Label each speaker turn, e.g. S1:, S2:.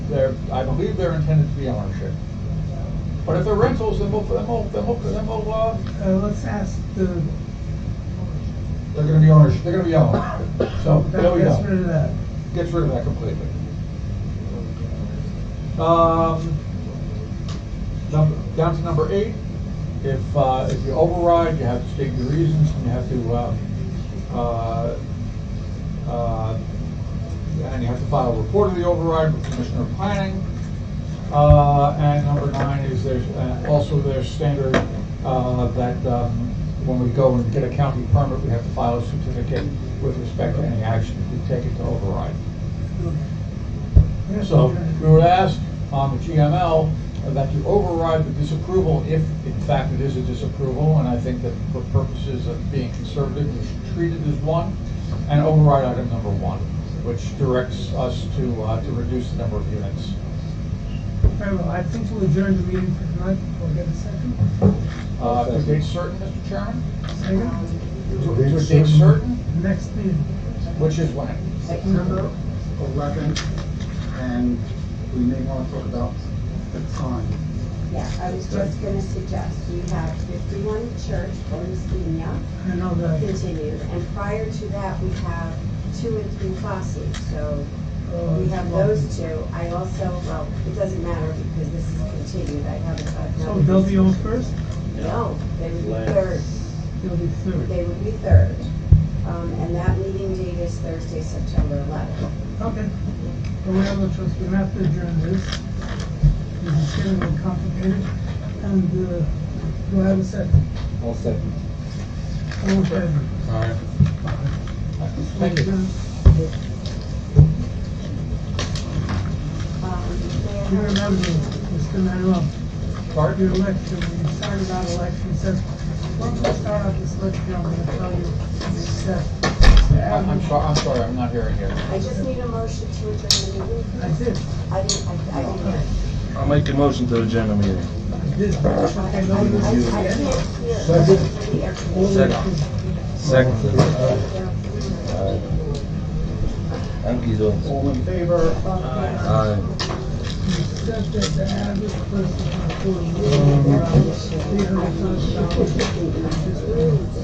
S1: they're, I believe they're intended to be ownership. But if they're rentals, then we'll, then we'll, then we'll, then we'll, uh,
S2: Uh, let's ask the,
S1: they're gonna be ownership, they're gonna be owned. So,
S2: that
S1: there we
S2: gets rid
S1: go.
S2: of that.
S1: Gets rid of that completely. Um, number, down to number eight, if, uh, if you override, you have to state your reasons, and you have to, uh, uh, uh, and you have to file a report of the override with Commissioner of Planning. Uh, and number nine is there's, uh, also there's standard, uh, that, um, when we go and get a county permit, we have to file a certificate with respect to any action we take it to override.
S2: Yes,
S1: So
S2: okay.
S1: we would ask on the GML that you override the disapproval if in fact it is a disapproval. And I think that for purposes of being conservative, we should treat it as one and override item number one, which directs us to, uh, to reduce the number of units.
S2: Very well, I think we'll adjourn the meeting for tonight, we'll get a second.
S1: Uh, to date certain, Mr. Chairman?
S2: Second,
S1: To to date certain,
S2: next meeting,
S1: which is when?
S3: September 11th, and we may want to talk about the time.
S4: Yeah, I was just gonna suggest, you have fifty-one church, Borisnia,
S2: I know that,
S4: continued, and prior to that, we have two and three classes, so
S2: uh.
S4: we have those two. I also, well, it doesn't matter because this is continued, I haven't. I've
S2: So
S4: not-
S2: they'll be on first,
S4: No, they would be third,
S2: they'll be third.
S4: they would be third, um, and that meeting date is Thursday, September eleventh.
S2: Okay, but we have no choice, we have to adjourn this. This is getting a little complicated, and, uh, do I have a second?
S5: I'll second.
S2: All in favor?
S1: Thank you.
S2: Adjourn.
S4: Um, may I
S2: You
S4: have-
S2: remember, Mr. Manuel,
S1: Bart?
S2: your lecture, when you started out election, says, when we start out this lecture, I'm gonna tell you that. the
S1: I'm, I'm
S2: average-"
S1: sorry, I'm sorry, I'm not hearing you.
S4: I just need a motion to adjourn the meeting.
S2: I
S4: please.
S2: did,
S4: I didn't, I, I didn't hear. it.
S6: I'll make a motion to adjourn the meeting.
S2: I did.
S4: I I- I
S2: Okay, no,
S4: can't
S2: you-
S4: hear. It's the air conditioning.
S6: Second. Second. Thank you, Jones.
S3: All in favor?
S6: Aye.
S2: You said that the average person has to live around three hundred thousand dollars.